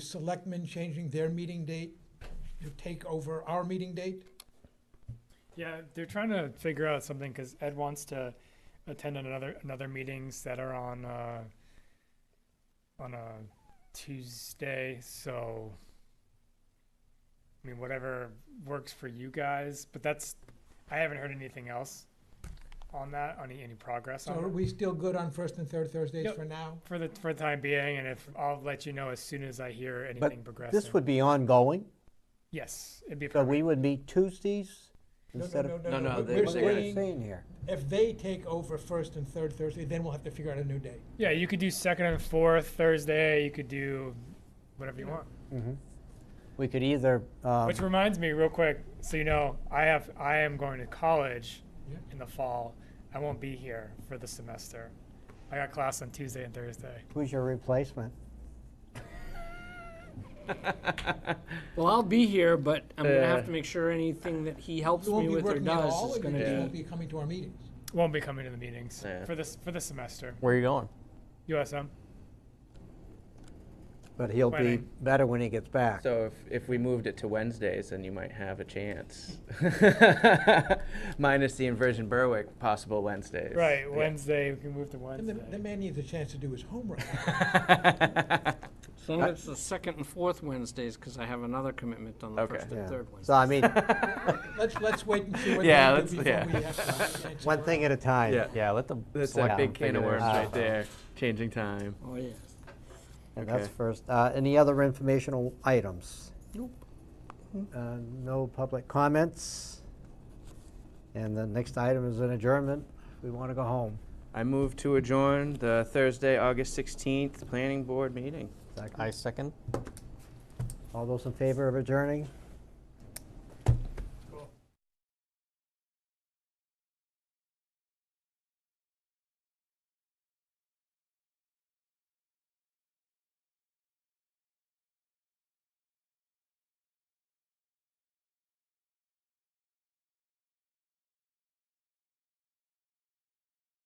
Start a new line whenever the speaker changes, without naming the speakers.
selectmen changing their meeting date to take over our meeting date?
Yeah, they're trying to figure out something because Ed wants to attend another another meetings that are on uh, on a Tuesday. So, I mean, whatever works for you guys. But that's I haven't heard anything else on that. on Any any progress
So
on
are
it
we still good on first and third Thursdays
Yep.
for now?
for the for the time being? And if I'll let you know as soon as I hear anything
But
progressing.
this would be ongoing,
yes, it'd be
so
perfect.
we would meet Tuesdays
No,
instead
no,
of.
no,
No,
no,
no,
we're
What are we
saying,
saying here?
if they take over first and third Thursday, then we'll have to figure out a new date.
yeah. You could do second and fourth Thursday. You could do whatever you want.
We could either, um,
Which reminds me, real quick, so you know, I have I am going to college
Yeah.
in the fall. I won't be here for the semester. I got class on Tuesday and Thursday.
who's your replacement?
Well, I'll be here, but I'm gonna
Yeah.
have to make sure anything that he helps
You
me
won't be
with or
working at
does
all,
is
and you
gonna
just
Yeah.
be.
won't be coming to our meetings.
Won't be coming to the meetings
Yeah.
for this for the semester.
Where are you going?
USM.
But he'll be
Planning.
better when he gets back.
So if, if we moved it to Wednesdays, then you might have a chance. Minus the inversion Berwick possible Wednesdays.
Right,
Yeah.
Wednesday. We can move to
And
Wednesday.
the, the man needs a chance to do his homework.
So it's the second and fourth Wednesdays, because I have another commitment on the
Okay.
first
Yeah.
and third
So
Wednesday.
I mean,
Let's, let's wait and see what
Yeah,
they
let's-
do before
yeah.
we have to. have a chance to
one
work.
thing at a time.
Yeah.
Yeah, let the
That's
select
a big
board
can of
figure
worms
this
right
out.
there. Changing time.
Oh, yeah.
And that's
Okay.
first. Uh, any other informational items?
Nope.
Uh, no public comments. And the next item is an adjournment. We want to go home.
I move to adjourn the Thursday, August 16th Planning Board meeting.
Second.
I second.
All those in favor of adjourning?